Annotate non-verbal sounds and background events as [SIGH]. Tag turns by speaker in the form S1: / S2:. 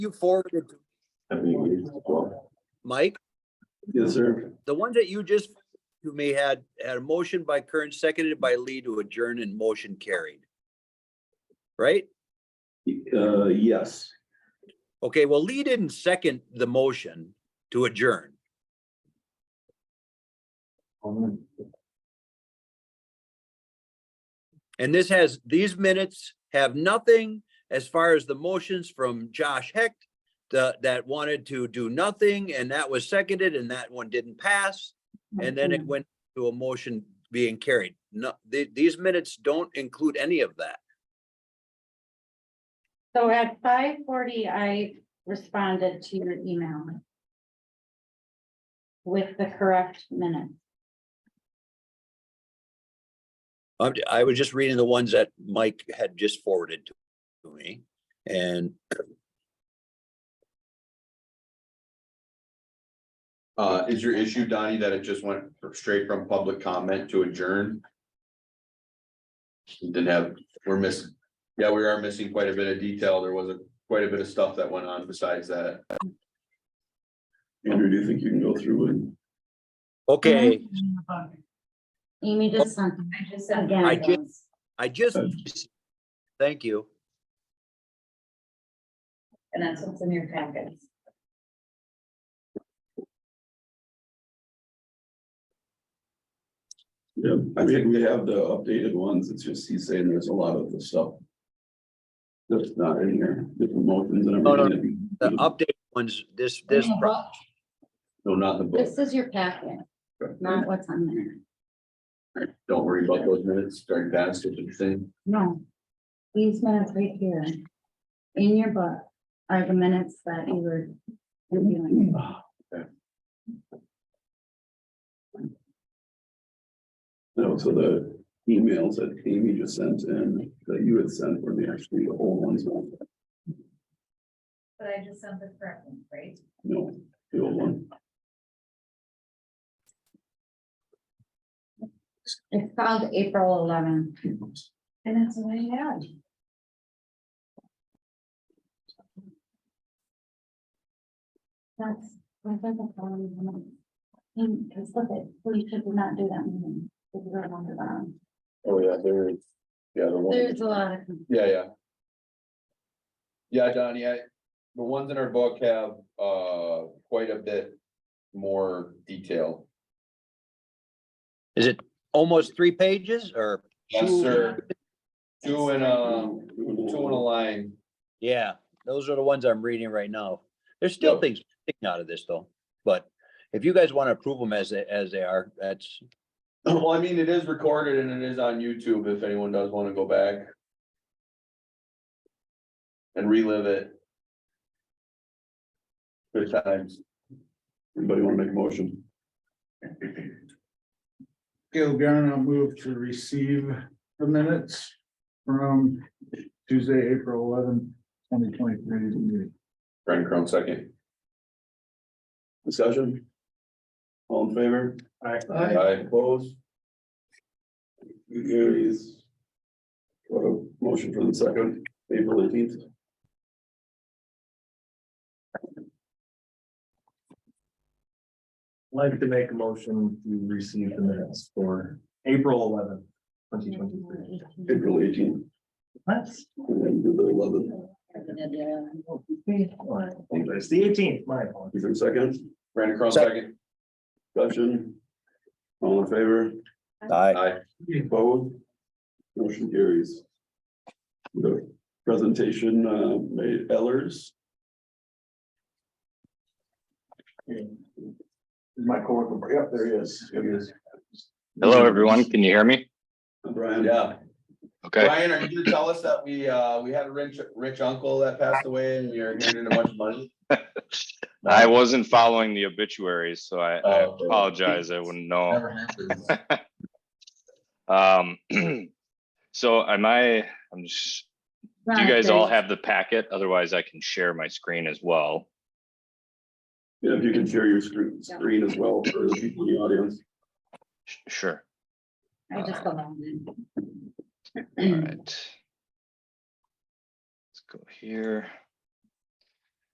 S1: you forwarded, to
S2: I mean, we used to go.
S1: Mike,
S2: Yes, sir.
S1: the ones that you just, to me, had, had a motion by Kern, seconded by Lee to adjourn and motion carried. Right?
S2: Uh, yes.
S1: Okay, well, Lee didn't second the motion to adjourn. And this has, these minutes have nothing as far as the motions from Josh Hecht the, that wanted to do nothing and that was seconded and that one didn't pass. And then
S3: Mm-hmm.
S1: it went to a motion being carried. No, the, these minutes don't include any of that.
S3: So at five forty, I responded to your email. With the correct minute.
S1: I'm, I was just reading the ones that Mike had just forwarded to me and
S4: Uh, is your issue, Donnie, that it just went straight from public comment to adjourn? Didn't have, we're missing, yeah, we are missing quite a bit of detail. There was a quite a bit of stuff that went on besides that.
S2: Andrew, do you think you can go through and?
S3: Mm-hmm.
S1: Okay,
S3: Amy just sent. I just sent. Again.
S1: I ju- I just, thank you.
S3: And that's what's in your packets.
S2: Yeah, I think we have the updated ones. It's just he's saying there's a lot of the stuff. That's not in here, different motions and
S1: no.
S2: everything.
S1: The updated ones, this, this, pro-
S4: No, not in the
S3: This
S4: book.
S3: is your packet, not what's on there.
S4: Don't worry about those minutes. Very fast, what you're saying.
S3: No. These minutes right here. In your book are the minutes that you were reviewing.
S2: No, so the emails that Amy just sent and that you had sent were the actually the old ones. no?
S3: But I just sent the correct one, right?
S2: No, the old one.
S3: It's called April eleventh. And that's what I had. That's. I think that's all we want. And Just look at, we should not do that. meeting, if we don't want to, um,
S4: Oh, yeah, there is. Yeah, the one.
S3: There's a lot of.
S4: Yeah, yeah. Yeah, Donnie, I, the ones in our book have, uh, quite a bit more detail.
S1: is it almost three pages or?
S4: Yes,
S1: two?
S4: sir. Two in a, two in a
S2: Two
S4: line.
S1: Yeah, those are the ones I'm reading right now. There's still
S4: Yep.
S1: things sticking out of this though, but if you guys want to approve them as, they- as they are, that's,
S4: [LAUGHS] Well, I mean, it is recorded and it is on YouTube if anyone does wanna go back. And relive it. Good times.
S2: Anybody want to make a motion?
S5: Caleb Garn, I'll move to receive the minutes from Tuesday, April eleventh, twenty twenty-three.
S4: Brian Crum second.
S2: Discussion? All in favor?
S4: Aye.
S2: Opposed? Carries. What a motion for the second, April eighteenth.
S6: Like to make a motion to receive the minutes for April eleventh, twenty twenty-three.
S2: April eighteenth,
S6: That's.
S2: and then do the eleventh,
S6: It's the eighteenth, my apologies.
S2: is there a second,
S4: Brandon Crum second.
S2: discussion? All in favor?
S1: I,
S4: Aye.
S2: Opposed? Motion carries. The presentation, uh, made Ellers,
S6: My coworker, yep, there he is. There he is.
S7: Hello, everyone. Can you hear me?
S2: Brian.
S4: Yeah.
S7: Okay,
S4: Brian, are you gonna tell us that we, uh, we had a rich, rich uncle that passed away and you're getting a bunch of money?
S7: I wasn't following the obituaries, so I I
S4: Oh, okay.
S7: apologize. I wouldn't know.
S4: Never happens.
S7: Um, [CLEARS THROAT] so am I, I'm just, do you guys all have the packet? Otherwise I can share my screen as well.
S2: Yeah, if you can share your screen, screen as well for the people in the audience.
S7: Sh- Sure.
S3: I just got that
S7: All
S3: one. [CLEARS THROAT]
S7: right. Let's go here.